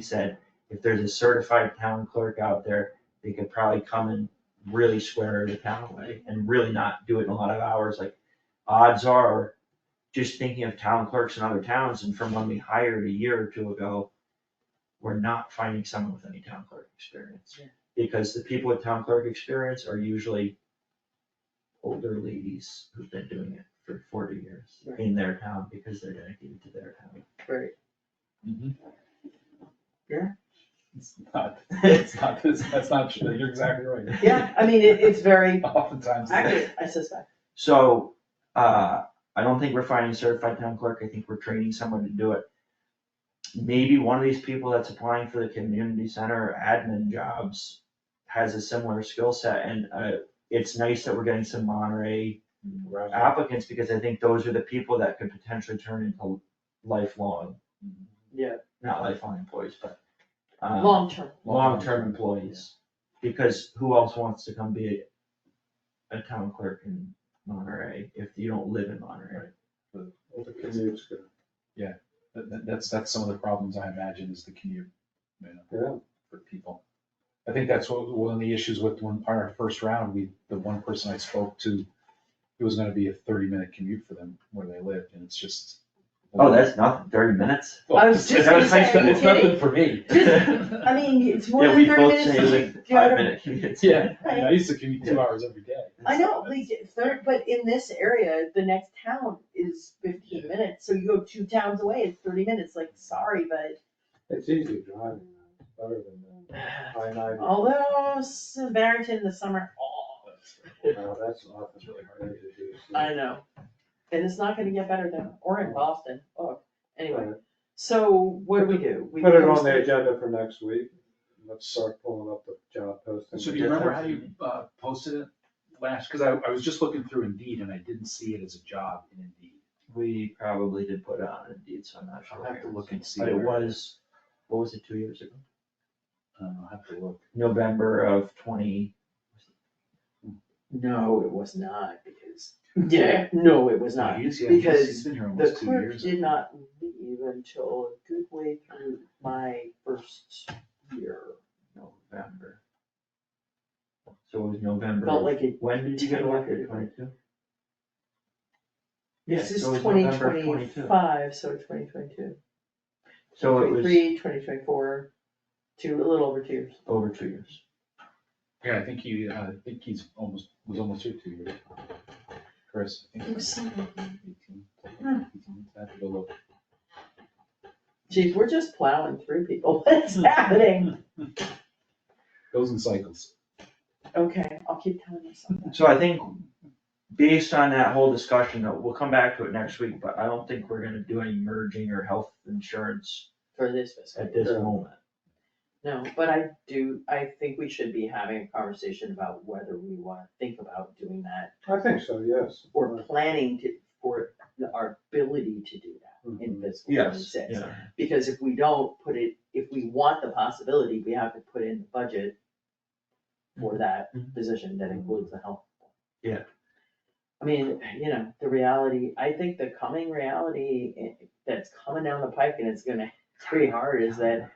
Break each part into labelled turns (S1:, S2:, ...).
S1: said, if there's a certified town clerk out there, they could probably come and really swear the town away and really not do it in a lot of hours, like odds are, just thinking of town clerks in other towns and from when we hired a year or two ago, we're not finding someone with any town clerk experience.
S2: Yeah.
S1: Because the people with town clerk experience are usually older ladies who've been doing it for forty years in their town because they're dedicated to their town.
S2: Right.
S3: Mm-hmm. It's not, it's not, this- that's not true, you're exactly right.
S2: Yeah, I mean, it, it's very
S3: Oftentimes.
S2: accurate, I suspect.
S1: So, uh, I don't think we're finding a certified town clerk, I think we're training someone to do it. Maybe one of these people that's applying for the community center admin jobs has a similar skill set and, uh, it's nice that we're getting some Monterey applicants because I think those are the people that could potentially turn into lifelong,
S2: Yeah.
S1: not lifelong employees, but, um,
S2: Long term.
S1: long-term employees. Because who else wants to come be a, a town clerk in Monterey if you don't live in Monterey?
S3: That- that- that's, that's some of the problems I imagine is the commute, you know,
S4: Yeah.
S3: for people. I think that's what, one of the issues with when, our first round, we, the one person I spoke to, it was gonna be a thirty-minute commute for them where they lived, and it's just.
S1: Oh, that's nothing, thirty minutes.
S3: Well,
S2: I was just
S1: gonna
S3: it's nothing-
S2: say,
S3: It's nothing
S2: kidding.
S3: for me.
S2: Just- I mean, it's more
S1: Yeah,
S2: than
S1: we
S2: thirty
S1: both
S2: minutes.
S1: say like
S2: Do you know what I
S1: five
S2: mean?
S1: minute commutes.
S3: Yeah, I mean, I used to commute two hours every day.
S2: I know, like, third, but in this area, the next town is fifteen minutes, so you go two towns away, it's thirty minutes, like, sorry, but.
S4: It's easy driving, it's better than I nine.
S2: Although, Samaritan this summer, oh,
S4: Now, that's often really hard to do. so-
S2: I know. And it's not gonna get better than, or in Boston, oh, anyway,
S4: But
S2: so what do we do? We
S4: Put it on
S2: post
S4: the agenda for next week, let's start pulling up the job posting.
S3: So do you remember how you uh, posted it last, because I, I was just looking through Indeed and I didn't see it as a job in Indeed.
S1: We probably did put it on Indeed, so I'm not sure.
S3: I'll have to look and see.
S1: But it
S3: where-
S1: was, what was it, two years ago?
S3: Uh, I'll have to look.
S1: November of twenty,
S2: No, it was not, because, yeah, no, it was not,
S3: He is, yeah, he's- He's
S2: because
S3: been here
S2: the
S3: almost two
S2: clerk
S3: years.
S2: did not leave until a good way through my first year.
S1: November. So it was November.
S2: Felt
S1: of-
S2: like it,
S1: When did you get
S2: ten
S1: elected,
S2: years.
S1: twenty-two? Yeah,
S2: this is
S1: so it was
S2: twenty
S1: November of 22.
S2: twenty-five, so twenty twenty-two,
S1: So it was
S2: twenty-three, twenty twenty-four, two, a little over two years.
S1: over two years.
S3: Yeah, I think he, uh, I think he's almost, was almost here two years. Chris, I think.
S2: was
S3: 18,
S2: Hmm.
S3: 18, I have to go look.
S2: Geez, we're just plowing through people, what's
S1: Hmm.
S2: happening?
S3: Goes in cycles.
S2: Okay, I'll keep telling myself that.
S1: So I think based on that whole discussion, though, we'll come back to it next week, but I don't think we're gonna do any merging or health insurance
S2: For this fiscal.
S1: at this moment.
S2: No, but I do, I think we should be having a conversation about whether we wanna think about doing that
S4: I think so, yes.
S2: or planning to, for the- our ability to do that in
S4: Mhm.
S2: fiscal twenty-six.
S1: Mm-hmm. Yeah,
S2: Because if we don't put it, if we want the possibility, we have to put in the budget for that
S1: Mhm.
S2: position that includes the health.
S1: Yeah.
S2: I mean, you know, the reality, I think the coming reality i- that's coming down the pike and it's gonna, it's pretty hard, is that,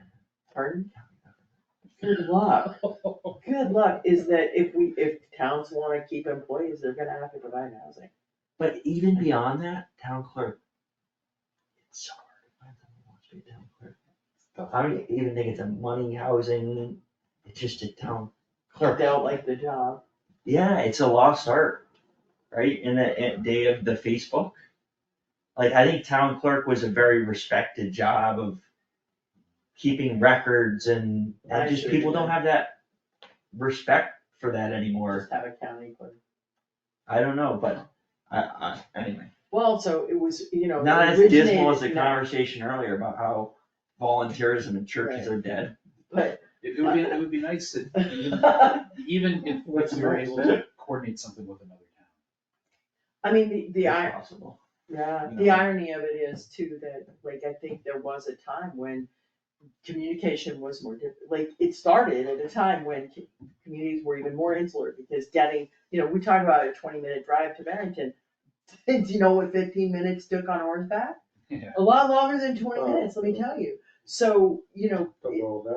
S2: pardon? Good luck. Good luck is that if we, if towns wanna keep employees, they're gonna have to provide housing.
S1: but even beyond that, town clerk. It's so hard to find someone who wants to be a town clerk. I don't even think it's a money, housing, it's just a town clerk.
S2: They don't like the job.
S1: Yeah, it's a lost art, right? In the in day of the Facebook. Like, I think town clerk was a very respected job of keeping records and,
S2: I
S1: and just
S2: see.
S1: people don't have that respect for that anymore.
S2: Just have a county clerk.
S1: I don't know, but I, I, anyway.
S2: Well, so it was, you know. it
S1: Not as dismal as the
S2: originated- no,
S1: conversation earlier about how volunteerism in churches are dead.
S2: But,
S3: It it would be, it would be nice if, even- even if
S4: What's
S3: we were
S4: nice?
S3: able to coordinate something with another town.
S2: I mean, the, the,
S1: It's
S2: ir-
S1: Possible.
S2: yeah,
S3: You
S2: the
S3: know.
S2: irony of it is too that, like, I think there was a time when communication was more diff, like, it started at a time when c- communities were even more insular because getting, you know, we talk about a twenty minute drive to Barrington. Do you know what fifteen minutes took on horseback?
S3: Yeah.
S2: A lot longer than twenty
S4: Oh.
S2: minutes, let me tell you.
S5: So, you know,
S2: the well, that